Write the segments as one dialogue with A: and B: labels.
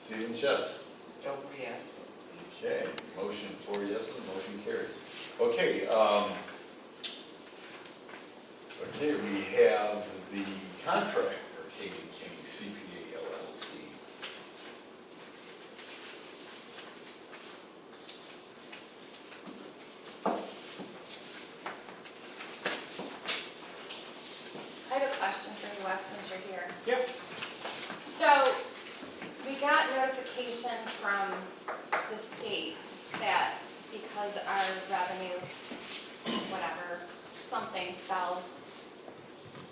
A: Stephen Chess.
B: Stover, yes.
A: Okay, motion for yes, and motion carries. Okay, um, okay, we have the contract for Kagan King CPA LLC.
C: I have a question for you, Wes, since you're here.
D: Yep.
C: So, we got notification from the state that because our revenue, whatever, something fell,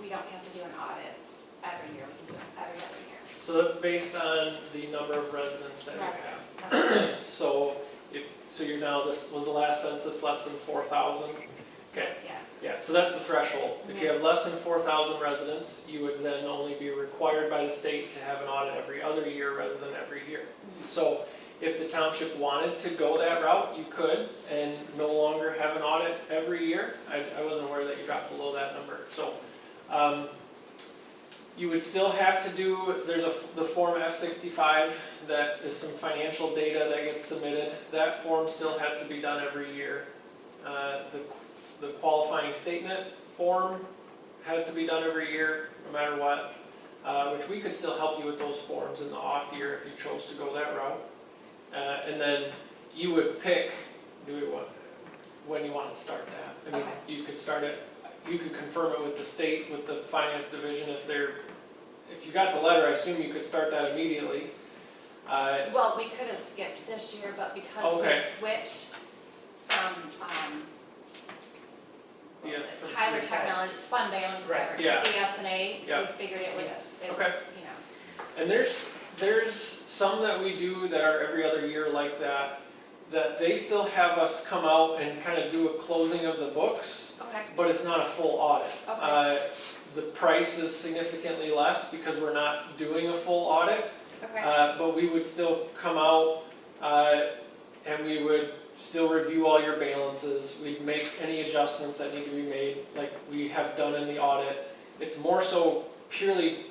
C: we don't have to do an audit every year, we can do it every other year.
D: So that's based on the number of residents that you have.
C: Residents, okay.
D: So if, so you're now, this was the last census, less than four thousand? Okay,
C: yeah,
D: yeah, so that's the threshold. If you have less than four thousand residents, you would then only be required by the state to have an audit every other year rather than every year. So if the township wanted to go that route, you could, and no longer have an audit every year. I, I wasn't aware that you dropped below that number, so. um, You would still have to do, there's a, the Form F sixty-five, that is some financial data that gets submitted. That form still has to be done every year. Uh, The the qualifying statement form has to be done every year, no matter what, uh, which we could still help you with those forms in the off year if you chose to go that route. Uh, And then you would pick, do we want, when you want to start that. I mean,
C: Okay.
D: you could start it, you could confirm it with the state, with the finance division, if they're, if you got the letter, I assume you could start that immediately. Uh,
C: well, we could have skipped this year, but because we
D: Okay.
C: switched from, um,
D: Yes.
C: Tyler Technologies, Fun Balance, whatever,
D: Right,
C: to
D: yeah.
C: BSNA,
D: Yeah.
C: they figured it was, it
D: Okay.
C: was, you know.
D: And there's, there's some that we do that are every other year like that, that they still have us come out and kind of do a closing of the books,
C: Okay,
D: but it's not a full audit.
C: Okay.
D: Uh, The price is significantly less because we're not doing a full audit,
C: okay,
D: uh, but we would still come out, uh, and we would still review all your balances, we'd make any adjustments that need to be made, like we have done in the audit. It's more so purely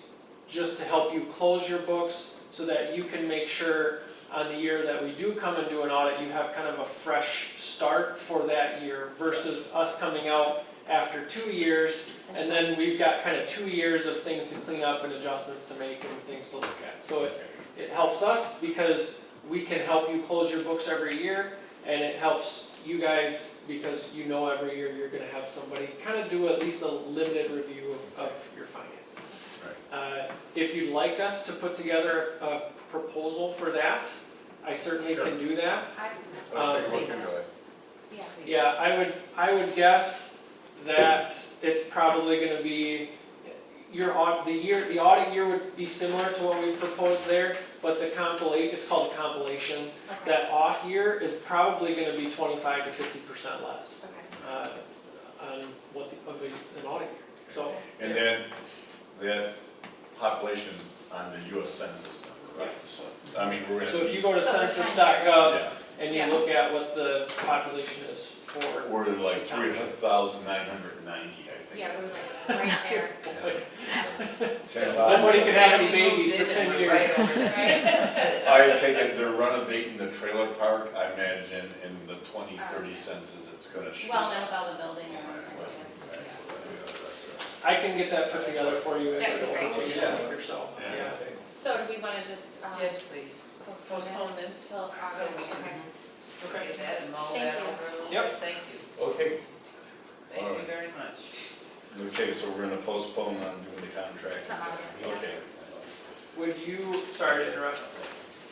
D: just to help you close your books, so that you can make sure on the year that we do come and do an audit, you have kind of a fresh start for that year versus us coming out after two years, and then we've got kind of two years of things to clean up and adjustments to make and things to look at. So uh, it it helps us because we can help you close your books every year, and it helps you guys because you know every year you're gonna have somebody kind of do at least a limited review of, of your finances. Uh, If you'd like us to put together a proposal for that, I certainly can do that.
C: I,
A: Let's take a
D: Um,
A: look into it.
C: yeah,
D: Yeah, I would, I would guess that it's probably gonna be, your audit, the year, the audit year would be similar to what we proposed there, but the compilation, it's called a compilation,
C: okay,
D: that off year is probably gonna be twenty-five to fifty percent less,
C: okay,
D: uh, on what, the- of a- an audit year, so.
A: And then, that population on the US Census number, right? So, I mean, we're gonna.
D: So if you go to
C: So for 10 years.
D: census.gov
A: Yeah,
D: and you
C: Yeah.
D: look at what the population is for,
A: we're like three thousand nine hundred and ninety, I think.
C: yeah, it was
A: that's-
C: like right there,
A: Ten
D: nobody
A: lives.
D: could have any
B: He moves
D: babies for
B: in
D: ten
B: and
D: years.
B: we're right over there.
C: right?
A: I take it they're renovating the trailer park, I imagine in the twenty, thirty census, it's gonna shoot.
C: Well, no, about the building and all that, yes, yeah.
D: I can get that put together for you in
C: That would be
D: a
C: great.
D: week
A: Yeah.
D: or so, yeah.
C: So do we wanna just, um,
B: Yes, please,
C: postpone
B: postpone
C: it
B: this,
C: till August?
B: so we can
C: Okay.
D: Okay.
B: get that and mull that
C: Thank you.
B: over a little
D: Yep.
B: bit, thank you,
A: Okay,
B: thank you
A: Alright.
B: very much.
A: okay, so we're gonna postpone on doing the contracts.
C: To August, yeah.
A: Okay.
D: Would you, sorry to interrupt,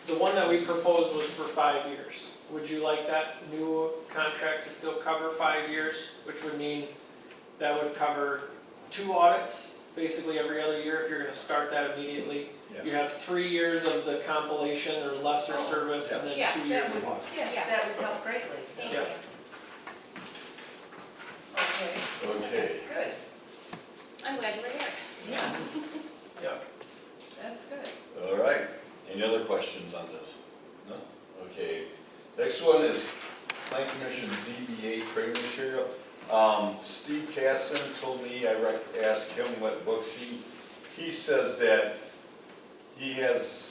D: the one that we proposed was for five years. Would you like that new contract to still cover five years, which would mean that would cover two audits, basically every other year, if you're gonna start that immediately? You
A: Yeah,
D: have three years of the compilation or lesser
B: Oh.
D: service, and then
C: Yeah.
D: two
C: Yes,
D: years of audit.
C: Yeah.
B: Yes, that would help greatly.
C: Thank
D: Yeah.
C: you.
B: Okay,
A: okay.
B: that's good,
C: I'm glad you were there.
B: yeah,
D: Yeah,
B: that's good.
A: All right, any other questions on this? No? Okay, next one is Plan Commission ZBA trade material. Um, Steve Casson told me, I rec- asked him what books he, he says that he has